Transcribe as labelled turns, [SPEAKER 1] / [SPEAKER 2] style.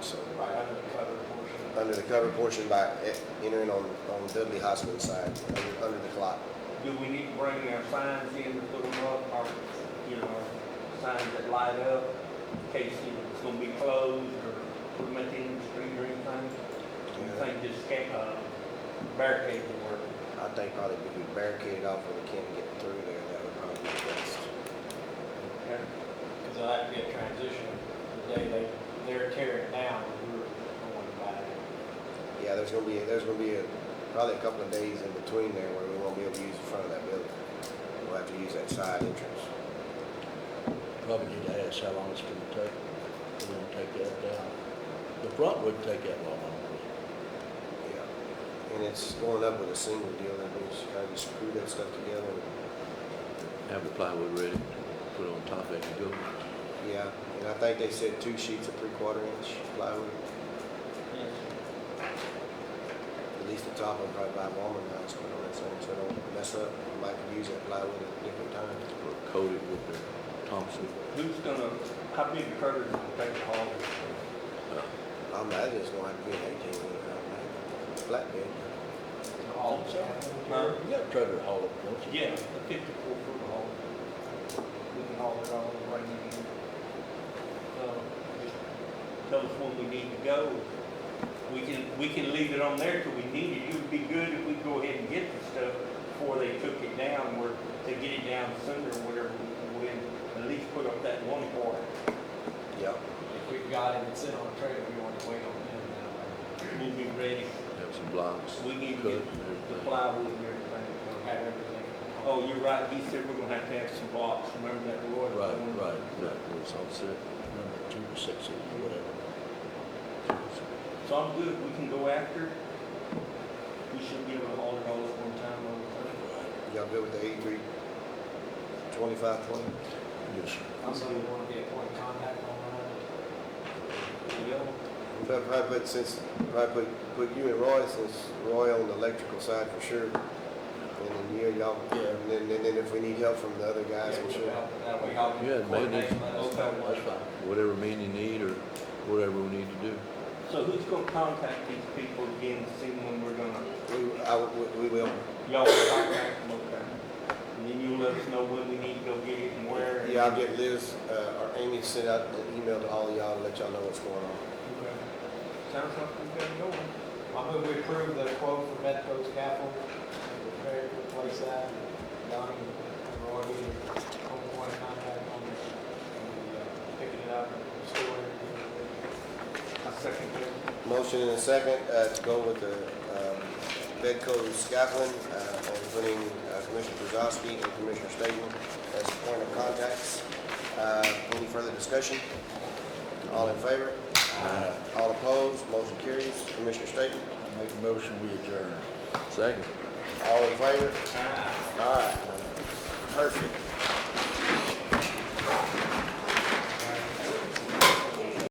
[SPEAKER 1] so.
[SPEAKER 2] Right, under the cover portion.
[SPEAKER 1] Under the cover portion by e- entering on, on Dudley Hospital side, under- under the clock.
[SPEAKER 2] Do we need to bring our signs in to put them up, or, you know, our signs that light up, in case you know, it's gonna be closed, or put them at the end of the street or anything? Do you think this can, uh, barricade will work?
[SPEAKER 1] I think probably if we barricaded off when we can't get through there, that would probably be best.
[SPEAKER 3] Because that would be a transition, the day they, they're tearing it down, and we're going back.
[SPEAKER 1] Yeah, there's gonna be, there's gonna be a, probably a couple of days in between there where we won't be able to use the front of that building. We'll have to use that side entrance.
[SPEAKER 4] Probably need to ask how long it's gonna take, we're gonna take that down. The front wouldn't take that long, I don't think.
[SPEAKER 1] Yeah. And it's going up with a single deal, that means you kinda screw that stuff together.
[SPEAKER 5] Have the plywood ready, put it on top as you go.
[SPEAKER 1] Yeah, and I think they said two sheets of three-quarter inch plywood,
[SPEAKER 2] Yes.
[SPEAKER 1] at least the top one probably by Walmart now, it's put on that thing, so it don't mess up. We Might could use that plywood at different times.
[SPEAKER 5] Or coat it with the Thompson.
[SPEAKER 2] Who's gonna, how big a curtain is gonna take the hall?
[SPEAKER 1] I imagine it's gonna have to be an eighteen wheeler, I imagine. Flat bed.
[SPEAKER 2] Hall. Huh?
[SPEAKER 4] You got a trailer haul up, don't you?
[SPEAKER 2] Yeah, a fifty-four foot hall. We can haul it all right in. So, just Tell us when we need to go. We can, we can leave it on there till we need it. It would be good if we go ahead and get the stuff before they took it down, or they get it down sooner, or whatever. We can at least put up that one part.
[SPEAKER 1] Yeah.
[SPEAKER 3] If we've got it, it's in on a trailer, we want to wait on them now,
[SPEAKER 2] We'll be ready.
[SPEAKER 5] Have some blocks.
[SPEAKER 2] We need to
[SPEAKER 5] cut and
[SPEAKER 2] get the
[SPEAKER 5] everything.
[SPEAKER 2] plywood and everything.
[SPEAKER 3] we'll have everything.
[SPEAKER 2] Oh, you're right, he said we're gonna have to have some blocks, remember that, Roy?
[SPEAKER 4] Right, right,
[SPEAKER 5] That was all set.
[SPEAKER 4] number two to six, or whatever.
[SPEAKER 2] So I'm good, we can go after. it. We should be able to haul it all at one time, all the time.
[SPEAKER 1] Y'all good with the eighty-three, twenty-five, twenty?
[SPEAKER 4] Yes,
[SPEAKER 3] Also, we want to be a point of contact online.
[SPEAKER 2] Yeah.
[SPEAKER 1] We better Probably put, since, probably put, put you and Roy, since Roy on the electrical side for sure. And then you, y'all, and then, and then if we need help from the other guys,
[SPEAKER 3] Yeah,
[SPEAKER 1] for
[SPEAKER 3] we'll
[SPEAKER 1] sure.
[SPEAKER 3] help- That way, help
[SPEAKER 5] Yeah, maybe.
[SPEAKER 3] coordinate, let us know what-
[SPEAKER 4] that's fine.
[SPEAKER 5] Whatever men you need or whatever we need to do.
[SPEAKER 2] So who's gonna contact these people again, to see when we're gonna,
[SPEAKER 1] We, I, would- we, we will,
[SPEAKER 2] y'all will contact them, okay? And then you'll let us know when we need to go get it and where. and-
[SPEAKER 1] yeah, I'll get Liz, uh, or Amy to send out an email to all of y'all and let y'all know what's going on.
[SPEAKER 2] Okay. Sounds like we've got it going.
[SPEAKER 3] I move we approve the quote for Medco's Capital, prepare to replace that, Donnie and Roy being on point of contact on this, and uh, picking it up and storing it.
[SPEAKER 2] I second that.
[SPEAKER 1] Motion in a second, uh, to go with the, um, Bedco Scotland, uh, and putting uh, Commissioner Brzezowski and Commissioner Stegman as point of contacts. Uh, any further discussion? All in favor? All opposed, motion carries. Commissioner Staton,
[SPEAKER 4] I make a motion, we adjourn.
[SPEAKER 5] Second.
[SPEAKER 1] all in favor?
[SPEAKER 2] Ah.
[SPEAKER 1] All right, perfect.